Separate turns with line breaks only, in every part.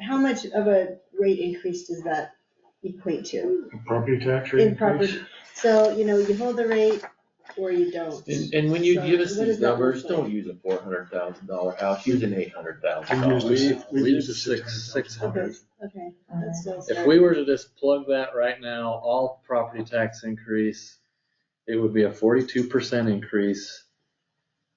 how much of a rate increase does that equate to?
Property tax rate
In property,
increase?
so, you know, you hold the rate or you don't.
And, and when you
So
give us
what
these
does that look
numbers,
like?
don't use a four hundred thousand dollar house, use an eight hundred thousand
We use
dollar.
the-
Uh, We,
we
we
use
use
the
six, six hundred.
Okay, that's still.
If we were to just plug that right now, all property tax increase, it would be a forty-two percent increase.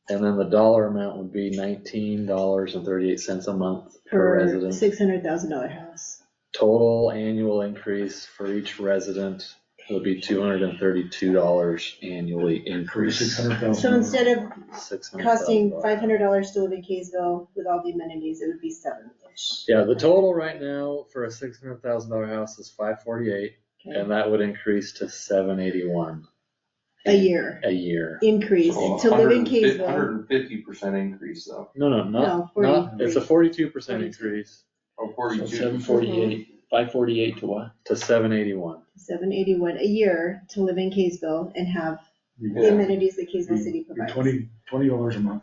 And then the dollar amount would be nineteen dollars and thirty-eight cents a month per
Per
resident.
six hundred thousand dollar house.
Total annual increase for each resident would be two hundred and thirty-two dollars annually
Six
increase.
hundred thousand.
So instead of
$600,000.
costing five hundred dollars to live in Kaysville with all the amenities, it would be seven-ish.
Yeah, the total right now for a six hundred thousand dollar house is five forty-eight,
Okay,
and that would increase to seven eighty-one
a year
a year.
increase
Oh,
to live in Kaysville.
Hundred and fifty percent increase though,
No, no,
No,
not, not, it's a forty-two percent
42.
increase
or
So
forty-two.
seven forty-eight, five forty-eight to what?
to seven eighty-one.
Mm-hmm. Seven eighty-one a year to live in Kaysville and have
Yeah.
the amenities that Kaysville
Mm.
City
You're
provides.
twenty, twenty dollars a month.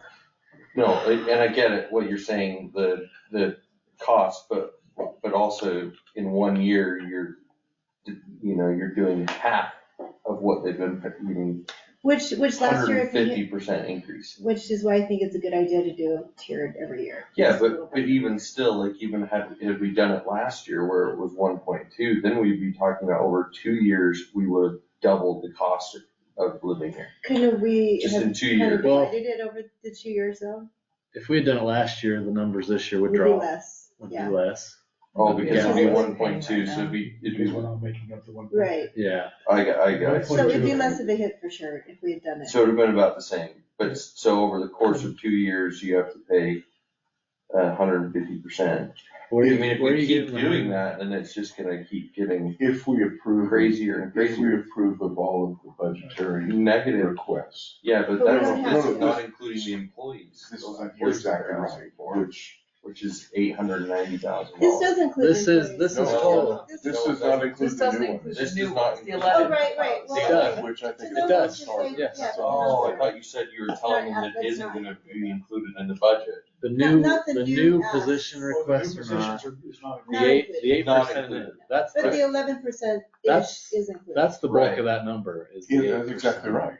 No, and and I get it, what you're saying, the, the cost, but, but also in one year, you're, you know, you're doing half of what they've been, you mean,
Which, which last year,
hundred and
if you
fifty percent increase.
Which is why I think it's a good idea to do tiered every year.
Yeah,
Just a little
but, but
bit.
even still, like even had, had we done it last year where it was one point two, then we'd be talking about over two years, we would have doubled the cost of of living here,
Couldn't we
just
have
in two
kind of
years.
Well-
divided it over the two years though?
If we had done it last year, the numbers this year
Would
would
be
drop,
less,
would be
yeah,
less.
Oh, because it'd be
Yeah.
one point two, so it'd be, it'd
Because
be,
we're not making up the one.
right.
Yeah,
I got, I got. it.
So it'd be less of a hit for sure if we had done it.
So it'd have been about the same, but s- so over the course of two years, you have to pay a hundred and fifty percent. I
where you,
mean, if
where
we
you
keep
getting the-
doing that, then it's just gonna keep getting
If we approve,
crazier and
if we
crazier.
approve of all of the budgetary
Negative,
requests,
yeah,
But
but
we
that's,
don't have
that's
to.
not including the employees.
this is,
Those
you're
employees
exactly
are
right,
asking for,
which,
Which is eight hundred and ninety thousand
This
dollars.
does include.
This is,
employees.
this is
No, no,
total.
This-
this
No,
does
that-
not include
This
the
doesn't
new
include
one.
the
This
new
does not
ones, the
include-
eleven.
Oh, right, right,
It
well,
does.
okay.
Which I think.
So
It
those
does.
are just like-
Yes.
yeah,
Oh, I
those are-
thought you said you were
That's
telling
not-
them that
that's
isn't
not-
gonna be included in the budget.
The new,
not the
the
new
new
ads.
position
Well, the new
requests are
positions
not,
are- is not
the
Not
eight,
included.
the eight
Not
percent,
included.
that's,
But
the-
the eleven percent-ish
That's-
is included.
that's the bulk
Right.
of that number is the
Yeah,
8%.
that's exactly right.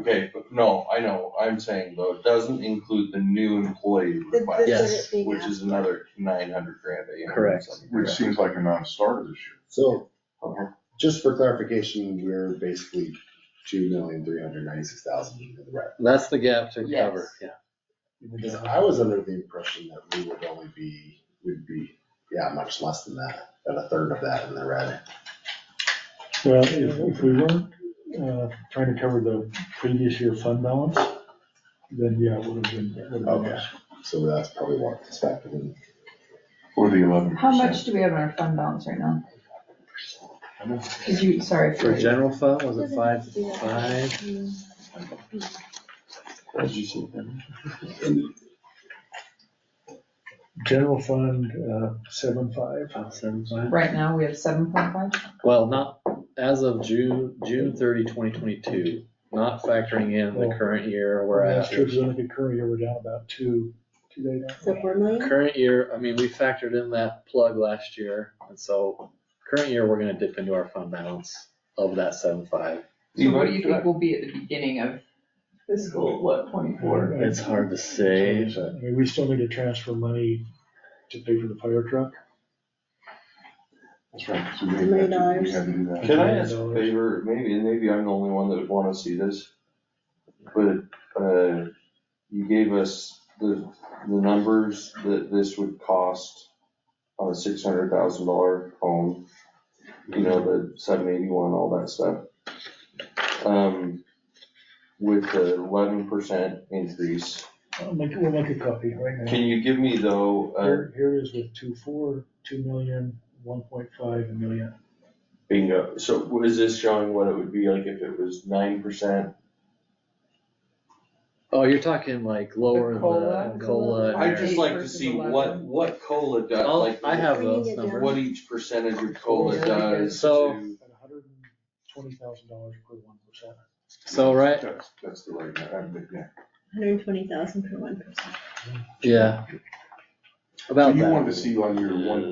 Okay, but no, I know, I'm saying though, it doesn't include the new employee
The- the-
request.
Yes,
the being
Which
asked
is
for.
another nine hundred grand. you know,
Correct.
something.
Which seems like a non-starter this year.
So,
Uh-huh.
just for clarification, we're basically two million, three hundred ninety-six thousand in the red.
That's the gap to
Yes.
cover, yeah.
Because I was under the impression that we would only be, would be, yeah, much less than that, about a third of that in the red.
Well, if, if we weren't, uh, trying to cover the previous year fund balance, then yeah, it would have been, would have been
Okay.
less.
So that's probably what it's factored in.
Or the eleven
How
percent.
much do we have in our fund balance right now?
I don't know.
Cause you, sorry.
For general fund, was it
Doesn't
five,
have to do that.
five?
Mm.
General fund, uh, seven five.
About seven, five?
Right now, we have seven point five?
Well, not, as of June, June 30, 2022, not factoring in the
Oh.
current year, we're at.
That's true, because I think the current year we're down about two, two days.
So four million?
Current year, I mean, we factored in that plug last year, and so current year, we're gonna dip into our fund balance of that seven five.
So what do you think will be at the beginning of fiscal, what, twenty-four?
It's hard to say,
uh,
I mean, we still need to transfer money to pay for the fire truck.
That's right, so we had
Million
to, we
dollars.
had to do that.
Can I ask a
$100.
favor, maybe, and maybe I'm the only one that would wanna see this, but, uh, you gave us the, the numbers that this would cost on a six hundred thousand dollar home, you know, the seven eighty-one, all that stuff. Um, with the eleven percent increase,
I'll make, we'll make a copy right now.
can you give me though, uh,
Here, here it is with two four, two million, one point five million.
bingo, so what is this showing what it would be like if it was nine percent?
oh, you're talking like lower the
cola?
I
cola. and
I'd
everything.
just like to
versus
see what,
11.
what COLA does,
I'll,
like.
I have
Bringing
those
it down.
numbers.
what each percentage of COLA
Yeah.
does
So-
to,
At hundred and twenty thousand dollars per one percent.
So, right,
That's, that's the right, I, I- yeah.
Hundred and twenty thousand per one percent.
yeah.
So
About
you
that.
wanted to see on your one